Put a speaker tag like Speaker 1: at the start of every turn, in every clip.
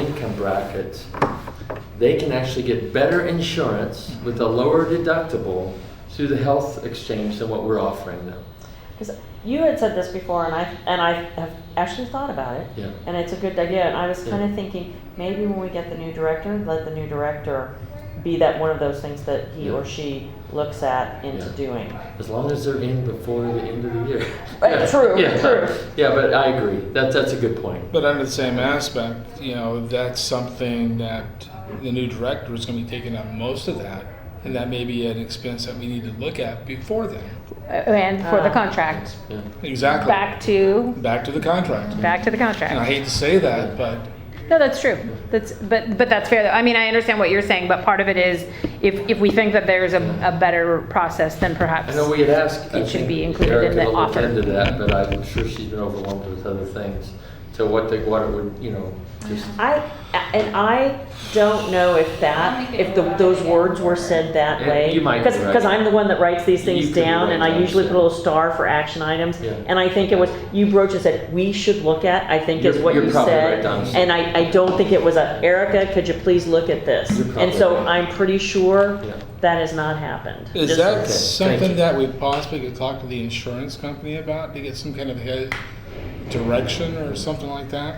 Speaker 1: income brackets, they can actually get better insurance with a lower deductible through the health exchange than what we're offering them.
Speaker 2: Because you had said this before, and I and I have actually thought about it.
Speaker 1: Yeah.
Speaker 2: And it's a good idea. And I was kind
Speaker 1: Yeah.
Speaker 2: of thinking maybe when we get the new director, let the new director be that one of those things that he
Speaker 1: Yeah.
Speaker 2: or she looks at into
Speaker 1: Yeah.
Speaker 2: doing.
Speaker 1: As long as they're in before the end of the year.
Speaker 2: Right,
Speaker 1: Yeah,
Speaker 2: true,
Speaker 1: yeah,
Speaker 2: true.
Speaker 1: Yeah, but I agree. That, that's a good point.
Speaker 3: But under the same aspect, you know, that's something that the new director is going to be taking on most of that, and that may be an expense that we need to look at before then.
Speaker 4: Uh, And for the
Speaker 2: Ah.
Speaker 4: contract,
Speaker 1: Yeah.
Speaker 3: Exactly.
Speaker 4: back to,
Speaker 3: Back to the contract.
Speaker 4: back to the
Speaker 3: And I
Speaker 4: contract.
Speaker 3: hate to say that, but
Speaker 4: No, that's true. That's, but, but that's fair though. I mean, I understand what you're saying, but part of it is if, if we think that there's a, a better process, then perhaps.
Speaker 1: I know we had asked. I
Speaker 4: It should
Speaker 1: think
Speaker 4: be included in the
Speaker 1: Erica will look
Speaker 4: offer.
Speaker 1: into that, but I'm sure she's been overwhelmed with other things. So what the, what it would, you know, just,
Speaker 2: I and I don't know if that if the, those words were said that
Speaker 1: Yeah,
Speaker 2: way.
Speaker 1: you might be
Speaker 2: because
Speaker 1: right.
Speaker 2: because I'm the one that writes these
Speaker 1: You
Speaker 2: things
Speaker 1: could be
Speaker 2: down,
Speaker 1: right,
Speaker 2: and I
Speaker 1: I'm
Speaker 2: usually
Speaker 1: sure.
Speaker 2: put a little star for action items.
Speaker 1: Yeah.
Speaker 2: And I think it was you broached and said we should look at. I think is
Speaker 1: You're-
Speaker 2: what
Speaker 1: you're
Speaker 2: you
Speaker 1: probably right,
Speaker 2: said.
Speaker 1: Donna.
Speaker 2: and I, I don't think it was a Erica. Could you please look at this?
Speaker 1: You're
Speaker 2: And
Speaker 1: probably
Speaker 2: so
Speaker 1: right.
Speaker 2: I'm pretty sure
Speaker 1: yeah.
Speaker 2: that has not happened.
Speaker 3: is
Speaker 2: Just-
Speaker 3: that
Speaker 1: okay. Thank you.
Speaker 3: something that we possibly could talk to the insurance company about to get some kind of head direction or something like that?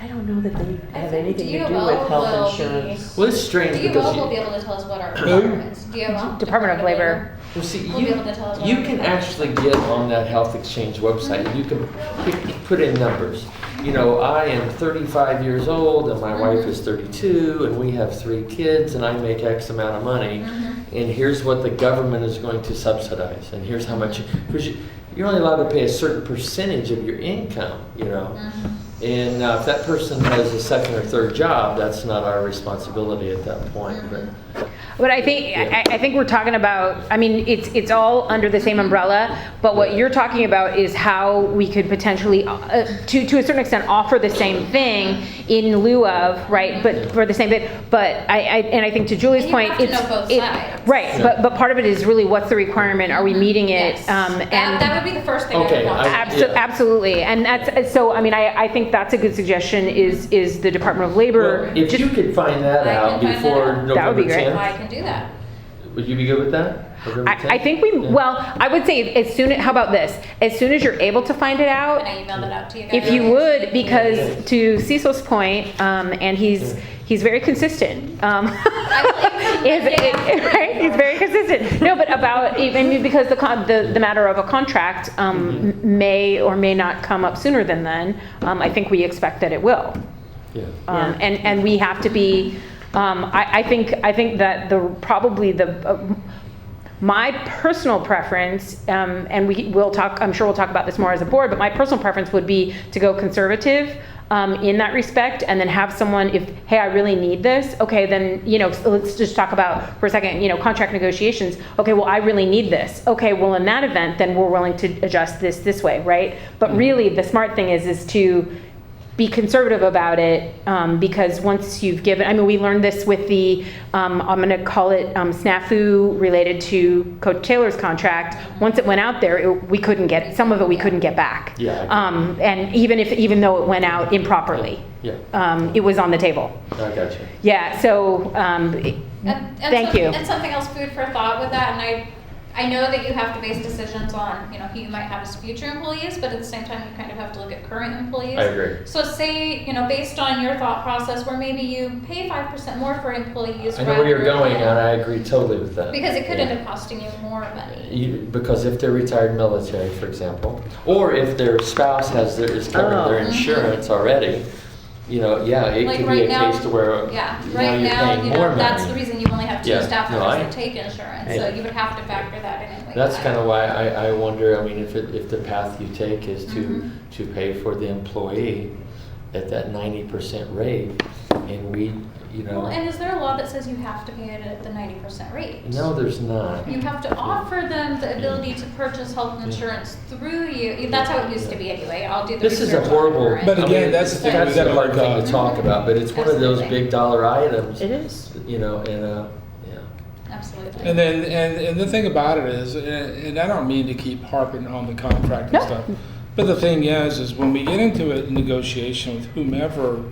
Speaker 2: I don't know that they
Speaker 5: I
Speaker 2: have
Speaker 5: think
Speaker 2: anything to do
Speaker 5: DOL
Speaker 2: with
Speaker 5: will
Speaker 2: health
Speaker 5: be-
Speaker 2: insurance.
Speaker 1: Well, it's strange because
Speaker 5: DOL will be
Speaker 1: you,
Speaker 5: able to tell us what our requirements. DOL.
Speaker 4: Department of Labor.
Speaker 1: well, see,
Speaker 5: We'll
Speaker 1: you,
Speaker 5: be able to tell us what
Speaker 1: you
Speaker 5: our
Speaker 1: can
Speaker 5: requirements
Speaker 1: actually get on that health exchange website. You can pick, put in numbers. You know, I am thirty-five years old and my wife
Speaker 5: Mm-hmm.
Speaker 1: is thirty-two and we have three kids and I make X amount of money.
Speaker 5: Mhm.
Speaker 1: and here's what the government is going to subsidize, and here's how much, because you, you're only allowed to pay a certain percentage of your income, you know.
Speaker 5: Mhm.
Speaker 1: And uh, if that person has a second or third job, that's not our responsibility at that point, but.
Speaker 5: Mm-hmm.
Speaker 4: But I think, I, I think we're talking about, I mean, it's, it's all under the same umbrella, but what you're talking about is how we could potentially, uh, to, to a certain extent, offer the same thing in lieu of, right, but for the same thing, but I, I, and I think to Julie's
Speaker 5: And you
Speaker 4: point,
Speaker 5: have to
Speaker 4: it's.
Speaker 5: know both
Speaker 4: it-
Speaker 5: sides.
Speaker 4: Right,
Speaker 1: Yeah.
Speaker 4: but, but part of it is really what's the requirement, are we meeting it?
Speaker 5: Yes.
Speaker 4: Um,
Speaker 5: That-
Speaker 4: and-
Speaker 5: That would be the first thing I
Speaker 1: Okay,
Speaker 5: would want.
Speaker 1: I-
Speaker 4: Abso-
Speaker 1: Yeah.
Speaker 4: Absolutely, and that's, so, I mean, I, I think that's a good suggestion, is, is the Department of Labor.
Speaker 1: Well, If
Speaker 4: just-
Speaker 1: you could find that
Speaker 5: I can
Speaker 1: out
Speaker 5: find that
Speaker 1: before
Speaker 5: out.
Speaker 4: That would
Speaker 1: November
Speaker 4: be great.
Speaker 5: I
Speaker 1: tenth,
Speaker 5: can do that.
Speaker 1: would you be good with that? November
Speaker 4: I, I
Speaker 1: 10th?
Speaker 4: think we,
Speaker 1: Yeah.
Speaker 4: well, I would say as soon, how about this? As soon as you're able to find it
Speaker 5: And
Speaker 4: out,
Speaker 5: I emailed it out to you guys.
Speaker 4: if you would, because to Cecil's point, um, and he's, he's very consistent. um, Is, it- right, he's very consistent. No, but about, even because the con, the, the matter of a contract, um, may or may not come up sooner than then. Um, I think we expect that it will.
Speaker 1: Yeah.
Speaker 4: Um, and, and we have to be, um, I, I think, I think that the, probably the, uh, my personal preference, um, and we will talk, I'm sure we'll talk about this more as a board, but my personal preference would be to go conservative, um, in that respect, and then have someone, if, hey, I really need this, okay, then, you know, so let's just talk about for a second, you know, contract negotiations. Okay, well, I really need this. Okay, well, in that event, then we're willing to adjust this this way, right? But really, the smart thing is, is to, be conservative about it um, because once you've given, I mean, we learned this with the, um, I'm going to call it um, snafu related to Coach Taylor's contract. Once it went out there, it, we couldn't get some of it. We couldn't get back.
Speaker 1: Yeah, I agree.
Speaker 4: Um, and even if, even though it went out improperly,
Speaker 1: Yeah,
Speaker 4: um, it was on the table.
Speaker 1: I got you.
Speaker 4: Yeah. So, um, it-
Speaker 5: And- and
Speaker 4: thank
Speaker 5: some-
Speaker 4: you.
Speaker 5: And something else, food for thought with that, and I, I know that you have to base decisions on, you know, who you might have as future employees, but at the same time, you kind of have to look at current employees.
Speaker 1: I agree.
Speaker 5: So say, you know, based on your thought process, where maybe you pay five percent more for employees.
Speaker 1: I know where you're
Speaker 5: rather
Speaker 1: going, and
Speaker 5: than-
Speaker 1: I agree totally with that.
Speaker 5: Because it could
Speaker 1: Yeah. Uh,
Speaker 5: end up costing you more money.
Speaker 1: You, because if they're retired military, for example, or if their spouse has their, is covering their
Speaker 2: Oh.
Speaker 1: insurance already, you know, yeah, it
Speaker 5: Like
Speaker 1: could be
Speaker 5: right
Speaker 1: a
Speaker 5: now-
Speaker 1: case to where
Speaker 5: Yeah,
Speaker 1: now
Speaker 5: right
Speaker 1: you're
Speaker 5: now,
Speaker 1: paying
Speaker 5: you
Speaker 1: more
Speaker 5: know, that's the
Speaker 1: money.
Speaker 5: reason you only have two
Speaker 1: Yeah,
Speaker 5: staff
Speaker 1: no, I-
Speaker 5: members that take insurance, so
Speaker 1: Yeah.
Speaker 5: you would have to factor that in anyway.
Speaker 1: That's kind of why I, I wonder. I mean, if it, if the path you take is to
Speaker 5: Mhm.
Speaker 1: to pay for the employee at that ninety percent rate, and we, you know,
Speaker 5: Well, and is there a law that says you have to pay it at the ninety percent rate?
Speaker 1: no, there's not.
Speaker 5: You have to offer them the ability to purchase health insurance through you. That's how it used to be anyway. I'll do the
Speaker 1: This is a
Speaker 5: research on it,
Speaker 1: horrible.
Speaker 5: right?
Speaker 3: But
Speaker 1: I mean,
Speaker 3: again, that's the thing
Speaker 1: That's
Speaker 3: we gotta
Speaker 1: a hard
Speaker 3: look
Speaker 1: thing
Speaker 3: up.
Speaker 1: to talk about, but it's one of those
Speaker 5: Absolutely.
Speaker 1: big dollar items.
Speaker 2: It is.
Speaker 1: You know, and uh, yeah,
Speaker 5: Absolutely.
Speaker 3: And then, and, and the thing about it is, and, and I don't mean to keep harping on the contract and
Speaker 4: No.
Speaker 3: stuff, but the thing is, is when we get into a negotiation with whomever